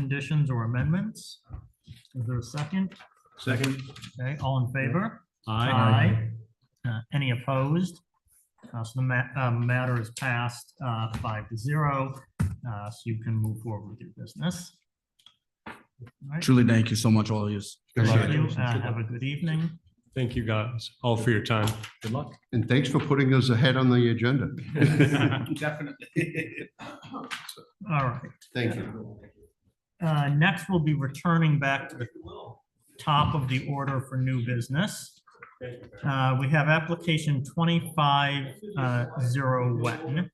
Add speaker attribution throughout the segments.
Speaker 1: conditions or amendments? Is there a second?
Speaker 2: Second.
Speaker 1: Okay, all in favor? Aye. Uh, Any opposed? Uh, So the ma- uh, matter is passed uh, five to zero, uh, so you can move forward with your business. Right.
Speaker 3: Truly, thank you so much, all of you.
Speaker 1: Thank you. Uh, Have a good evening.
Speaker 4: Thank you guys all for your time. Good luck.
Speaker 2: And thanks for putting us ahead on the agenda.
Speaker 5: Definitely.
Speaker 1: All right.
Speaker 2: Thank you.
Speaker 1: Uh, Next, we'll be returning back to the top of the order for new business. Uh, We have application 25 uh, zero Wetton.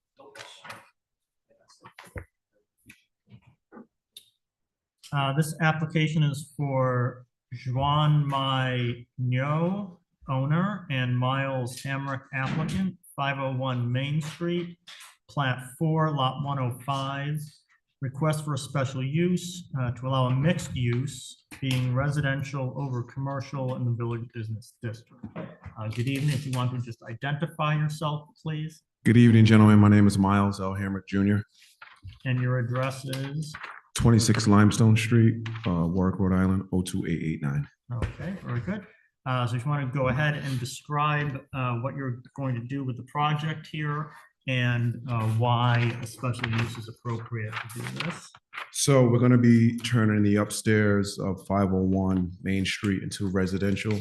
Speaker 1: Uh, This application is for Juan Mai Nyo, owner, and Miles Hamrick applicant, 501 Main Street, plat 4, lot 105, request for a special use uh, to allow a mixed use being residential over commercial in the village business district. Uh, Good evening. If you want to just identify yourself, please,
Speaker 6: Good evening, gentlemen. My name is Miles L. Hamrick Jr.,
Speaker 1: and your address is,
Speaker 6: 26 Limestone Street, uh, Warwick, Rhode Island, 02889.
Speaker 1: okay, very good. Uh, So if you want to go ahead and describe uh, what you're going to do with the project here and uh, why a special use is appropriate to do this.
Speaker 6: So we're going to be turning the upstairs of 501 Main Street into residential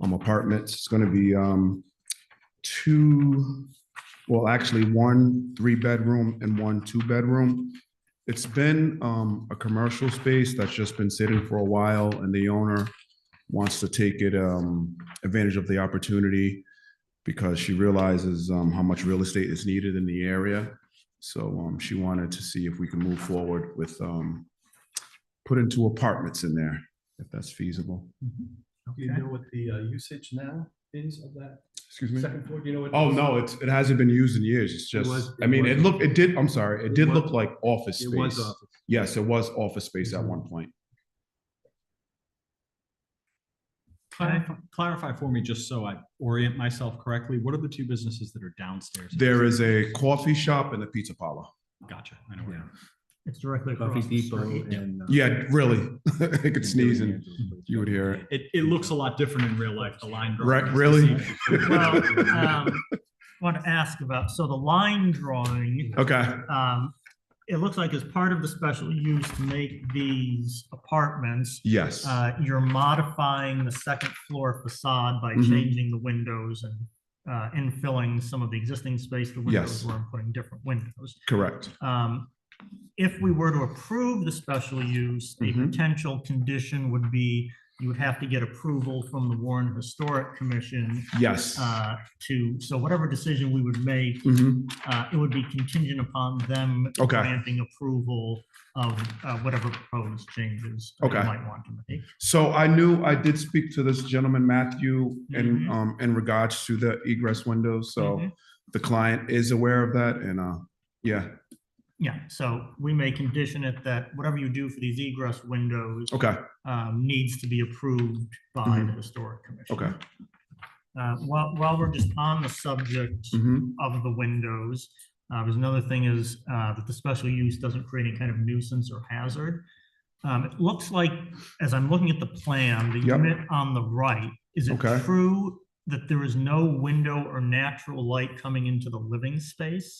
Speaker 6: um, apartments. It's going to be um, two, well, actually, one three-bedroom and one two-bedroom. It's been um, a commercial space that's just been sitting for a while, and the owner wants to take it um, advantage of the opportunity because she realizes um, how much real estate is needed in the area. So um, she wanted to see if we can move forward with um, putting two apartments in there, if that's feasible.
Speaker 5: Do you
Speaker 1: Okay.
Speaker 5: know what the uh, usage now is of that
Speaker 6: Excuse me?
Speaker 5: second floor? Do you know what?
Speaker 6: Oh, no, it's, it hasn't been used in years. It's just,
Speaker 5: was-
Speaker 6: I mean, it
Speaker 5: was-
Speaker 6: looked, it did, I'm sorry, it
Speaker 5: It
Speaker 6: did
Speaker 5: was-
Speaker 6: look like office
Speaker 5: It was
Speaker 4: uh,
Speaker 5: Mm-hmm.
Speaker 6: space.
Speaker 5: office.
Speaker 6: Yes, it was office space at one point.
Speaker 4: Clarify clarify for me, just so I orient myself correctly, what are the two businesses that are downstairs?
Speaker 6: There is a coffee shop and a pizza parlor.
Speaker 4: Gotcha. I know where.
Speaker 1: It's directly across the street.
Speaker 5: and.
Speaker 6: Yeah, really. I could sneeze and you would hear it.
Speaker 4: It, it looks a lot different in real life, the line.
Speaker 6: Right,
Speaker 4: drawings this
Speaker 6: really?
Speaker 4: evening.
Speaker 1: Well, um, want to ask about, so the line drawing
Speaker 6: Okay,
Speaker 1: um, it looks like as part of the special use to make these apartments,
Speaker 6: yes,
Speaker 1: uh, you're modifying the second floor facade by
Speaker 6: Mhm.
Speaker 1: changing the windows and, uh, infilling some of the existing space, the windows
Speaker 6: Yes.
Speaker 1: were, and putting different windows.
Speaker 6: correct.
Speaker 1: Um, if we were to approve the special use, a
Speaker 6: Mhm.
Speaker 1: potential condition would be you would have to get approval from the Warren Historic Commission,
Speaker 6: Yes.
Speaker 1: uh, to, so whatever decision we would make,
Speaker 6: Mhm.
Speaker 1: uh, it would be contingent upon them
Speaker 6: Okay.
Speaker 1: granting approval of uh, whatever proposed changes they
Speaker 6: Okay.
Speaker 1: might want to make.
Speaker 6: So I knew, I did speak to this gentleman, Matthew, in,
Speaker 1: Mhm.
Speaker 6: um, in regards to the egress windows, so
Speaker 1: Mhm.
Speaker 6: the client is aware of that, and, uh, yeah,
Speaker 1: Yeah, so we may condition it that whatever you do for these egress windows
Speaker 6: okay,
Speaker 1: um, needs to be approved by the
Speaker 6: Mhm.
Speaker 1: Historic Commission.
Speaker 6: okay.
Speaker 1: Uh, While, while we're just on the subject
Speaker 6: Mhm.
Speaker 1: of the windows, uh, there's another thing is uh, that the special use doesn't create any kind of nuisance or hazard. Um, It looks like, as I'm looking at the plan, the
Speaker 6: Yep.
Speaker 1: unit on the right, is it
Speaker 6: Okay.
Speaker 1: true that there is no window or natural light coming into the living space?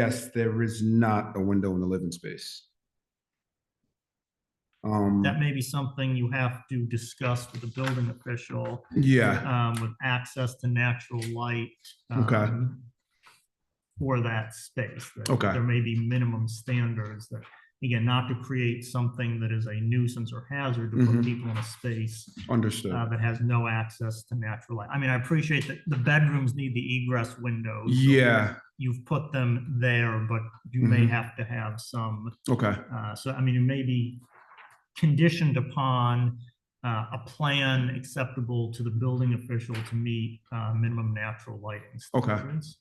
Speaker 6: Yes, there is not a window in the living space. Um,
Speaker 1: That may be something you have to discuss with the building official,
Speaker 6: yeah,
Speaker 1: um, with access to natural light.
Speaker 6: Okay.
Speaker 1: um, For that space. that
Speaker 6: Okay.
Speaker 1: There may be minimum standards that, again, not to create something that is a nuisance or hazard to put
Speaker 6: Mhm.
Speaker 1: people in a space
Speaker 6: understood.
Speaker 1: uh, that has no access to natural light. I mean, I appreciate that the bedrooms need the egress windows. so
Speaker 6: Yeah,
Speaker 1: You've put them there, but you may
Speaker 6: Mhm.
Speaker 1: have to have some,
Speaker 6: okay,
Speaker 1: uh, so I mean, it may be conditioned upon uh, a plan acceptable to the building official to meet uh, minimum natural lighting
Speaker 6: Okay.
Speaker 1: standards.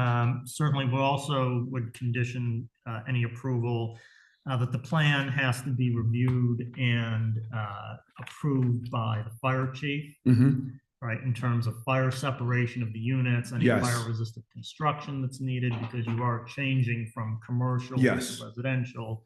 Speaker 1: Um, Certainly, we also would condition uh, any approval uh, that the plan has to be reviewed and uh, approved by the fire chief.
Speaker 6: mhm,
Speaker 1: right, in terms of fire separation of the units, any
Speaker 6: Yes.
Speaker 1: fire resistant construction that's needed, because you are changing from commercial to
Speaker 6: Yes.
Speaker 1: residential.